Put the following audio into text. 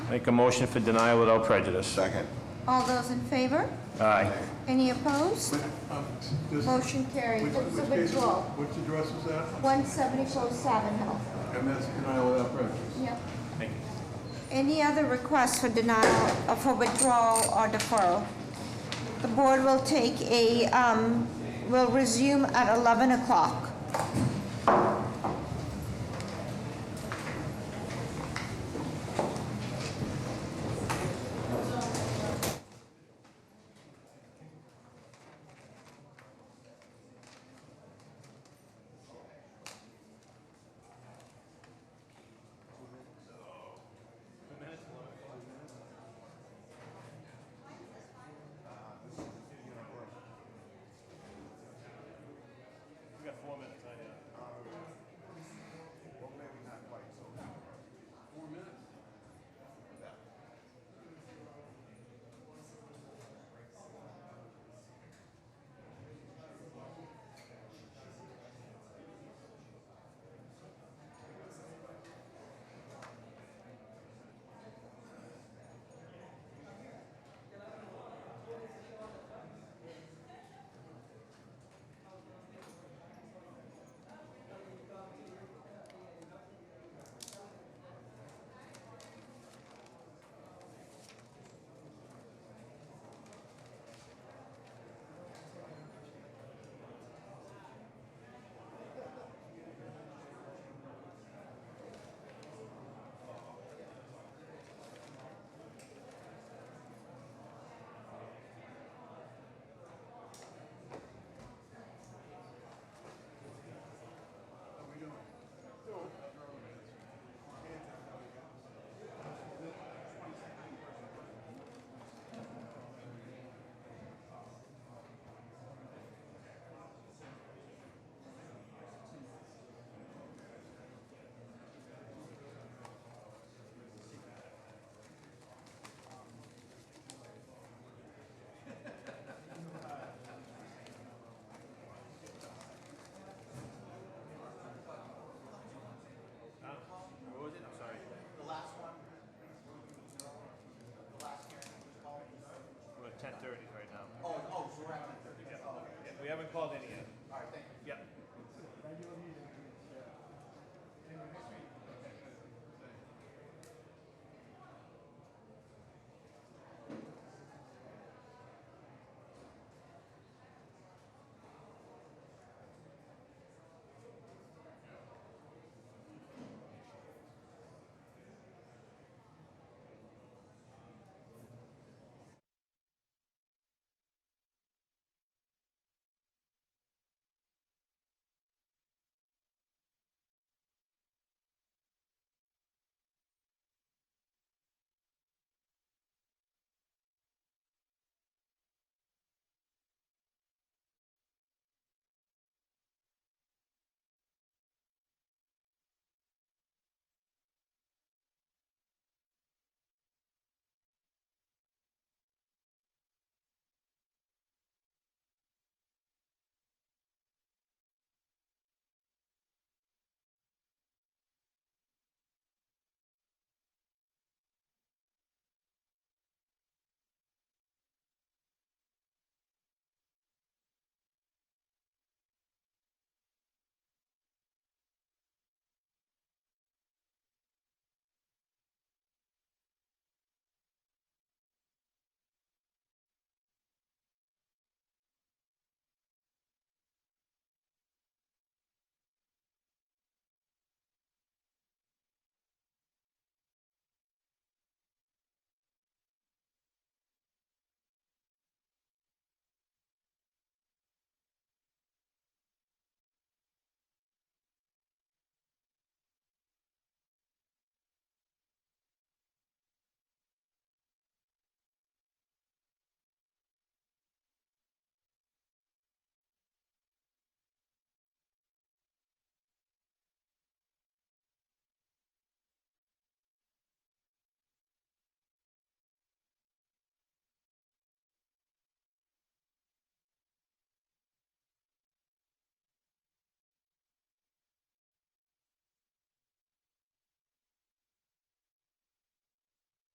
Make a motion for denial without prejudice. Second. All those in favor? Aye. Any opposed? Um, this- Motion carried. which- It's a which case is- withdrawal. Which address is that? 1747 Health. And that's denial without prejudice. Yep. Thank you. Any other requests for denial, uh, for withdrawal or deferral? The board will take a, um, will resume at 11 o'clock.